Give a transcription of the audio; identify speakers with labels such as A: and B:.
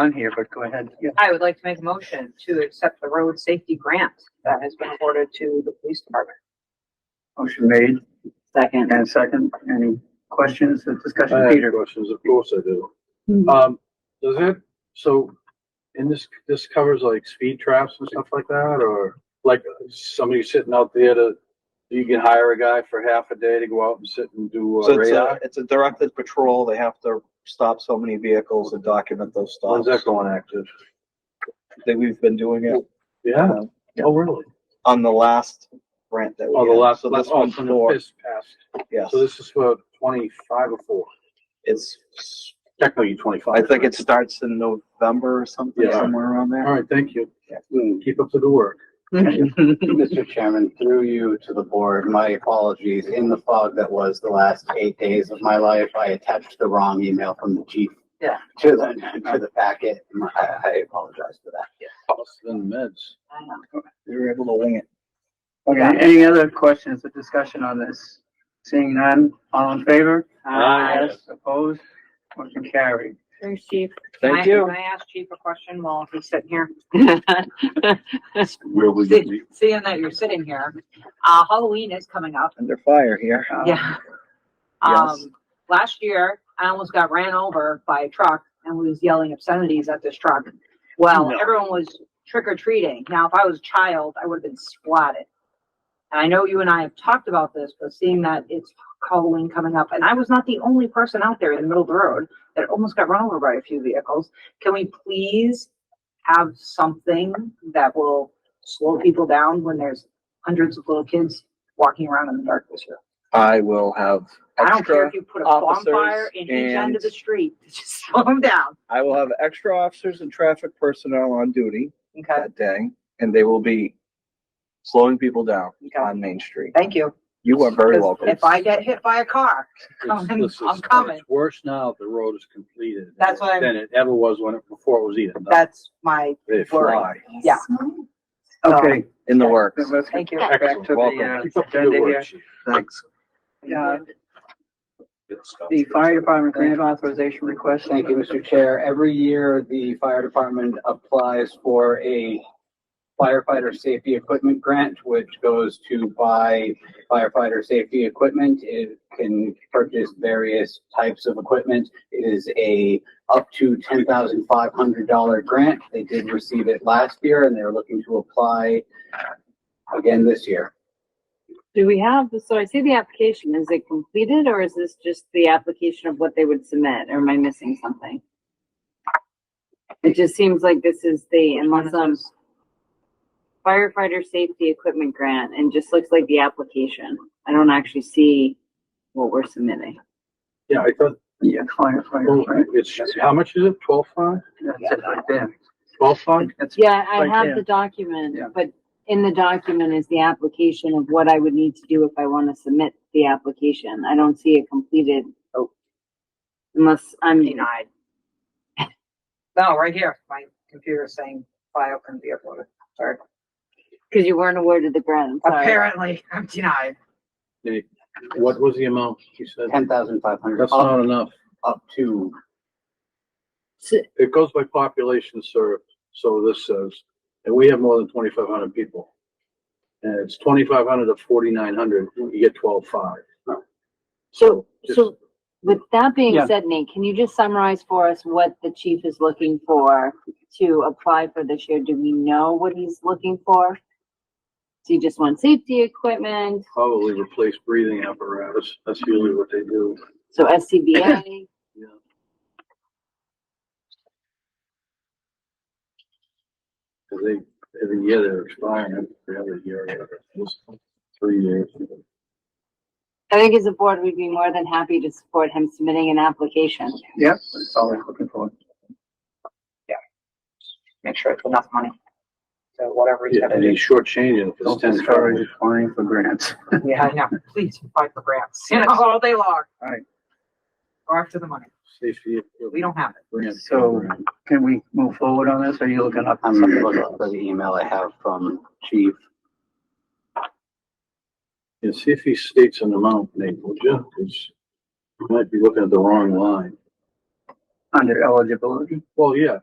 A: on here, but go ahead. Yeah.
B: I would like to make a motion to accept the road safety grant that has been awarded to the police department.
A: Motion made
B: Second.
A: and second. Any questions or
C: I
A: discussion?
D: Uh,
C: have
A: Peter?
C: questions, of course I do. Um, does that, so, and this, this covers like speed traps and stuff like that, or like uh, somebody sitting out there to, you can hire a guy for half a day to go out and sit and do
E: So
C: uh,
E: it's a,
C: radar?
E: it's a directed patrol. They have to stop so many vehicles and document those
C: When's
E: stops.
C: that going active?
E: That we've been doing it
C: Yeah, oh, really?
E: on the last grant that we
C: Oh, the
E: had.
C: last,
E: So
C: last,
E: this
C: oh,
E: one's
C: from the
E: four,
C: fist pass.
E: yes.
C: So this is for twenty-five or four,
E: It's,
C: technically twenty-five.
E: I think it starts in November or something,
C: Yeah.
E: somewhere around
C: All
E: there.
C: right, thank you.
D: Hmm.
C: Keep up the good work.
D: Mr. Chairman, through you to the board, my apologies. In the fog that was the last eight days of my life, I attached the wrong email from the chief.
B: Yeah.
D: To the, to the packet. I, I apologize for that.
C: Than the meds.
B: I know.
E: We were able to wing it.
A: Okay, any other questions or discussion on this? Seeing none, all in favor?
C: Aye.
A: Yes, Opposed? Motion carried.
B: Thanks, chief. Can I-
E: Thank you.
B: Can I ask chief a question while he's sitting here?
F: Where will you be?
B: See- Seeing that you're sitting here, uh, Halloween is coming up.
E: Under fire here.
A: Uh,
B: Yeah.
E: Yes.
B: Um, last year, I almost got ran over by a truck and we was yelling obscenities at this truck. Well,
C: No.
B: everyone was trick or treating. Now, if I was a child, I would have been swatted. And I know you and I have talked about this, but seeing that it's Halloween coming up, and I was not the only person out there in the middle of the road that almost got run over by a few vehicles, can we please have something that will slow people down when there's hundreds of little kids walking around in the dark this year?
E: I will have
B: I don't care if
E: extra,
B: you put a
E: officers
B: bonfire in each end of
E: and-
B: the street, just slow them down,
E: I will have extra officers and traffic personnel on duty
B: okay?
E: that day, and they will be slowing people down
B: Okay,
E: on Main Street.
B: thank you.
E: You are very
B: 'Cause
E: welcome.
B: If I get hit by a car,
C: It's-
B: Coming.
C: this is-
B: I'm coming.
C: It's worse now that the road is completed.
B: That's what I'm-
C: Than it ever was when it, before it was even. done.
B: that's my,
C: They
B: worried.
C: fly.
B: yeah,
A: Okay,
E: in the works.
A: then let's get
B: thank you.
A: back
C: Excellent.
A: to
E: Welcome.
A: the
C: Keep
A: uh,
C: up the good
A: agenda
C: work,
A: here.
C: Chief.
E: Thanks.
A: Uh, The fire department grant authorization request.
D: Thank you, Mr. Chair. Every year, the fire department applies for a firefighter safety equipment grant, which goes to buy firefighter safety equipment. It can purchase various types of equipment. It is a up to ten thousand five hundred dollar grant. They did receive it last year and they're looking to apply again this year.
G: Do we have, so I see the application, is it completed or is this just the application of what they would submit, or am I missing something? It just seems like this is the, unless I'm firefighter safety equipment grant, and just looks like the application. I don't actually see what we're submitting.
C: Yeah, I thought, oh,
A: Yeah, firefighters, right?
C: it's, how much is it? Twelve five?
A: That's it right there.
C: Twelve five?
A: That's
G: Yeah, I
A: Right
G: have
A: there.
G: the document,
A: Yeah.
G: but in the document is the application of what I would need to do if I want to submit the application. I don't see it completed.
A: Oh.
G: Unless I'm
B: Denied. No, right here, my computer's saying file can be uploaded, sorry.
G: Because you weren't aware of the grant, I'm sorry.
B: Apparently, I'm denied.
C: What was the amount he said?
D: Ten thousand five hundred
C: That's not enough.
D: up to
C: It goes by population, sir, so this says, and we have more than twenty-five hundred people. And it's twenty-five hundred to forty-nine hundred, you get twelve five.
G: So,
C: Just-
G: so with that being
A: Yeah.
G: said, Nate, can you just summarize for us what the chief is looking for to apply for this year? Do we know what he's looking for? Do you just want safety equipment?
C: Probably replace breathing apparatus, that's usually what they do.
G: So SCBA?
C: Yeah. Cause they, every year they're expiring, every other year, or whatever. It's three years.
G: I think as a board, we'd be more than happy to support him submitting an application.
A: Yep, that's all we're looking for.
B: Make sure it's enough money. So whatever he's
C: Yeah,
B: gonna
C: and
B: do.
C: he's shortchanging if it's
A: Don't
C: ten
A: discourage
C: dollars.
A: applying for grants.
B: Yeah, I know, please apply for grants, you know, all day long.
A: Alright.
B: Go after the money,
C: Safety.
B: we don't have it.
A: So can we move forward on this? Are you looking up?
D: I'm looking for the email I have from chief.
C: And see if he states an amount, Nate, would you? 'Cause you might be looking at the wrong line.
A: Under eligibility?
C: Well, yeah,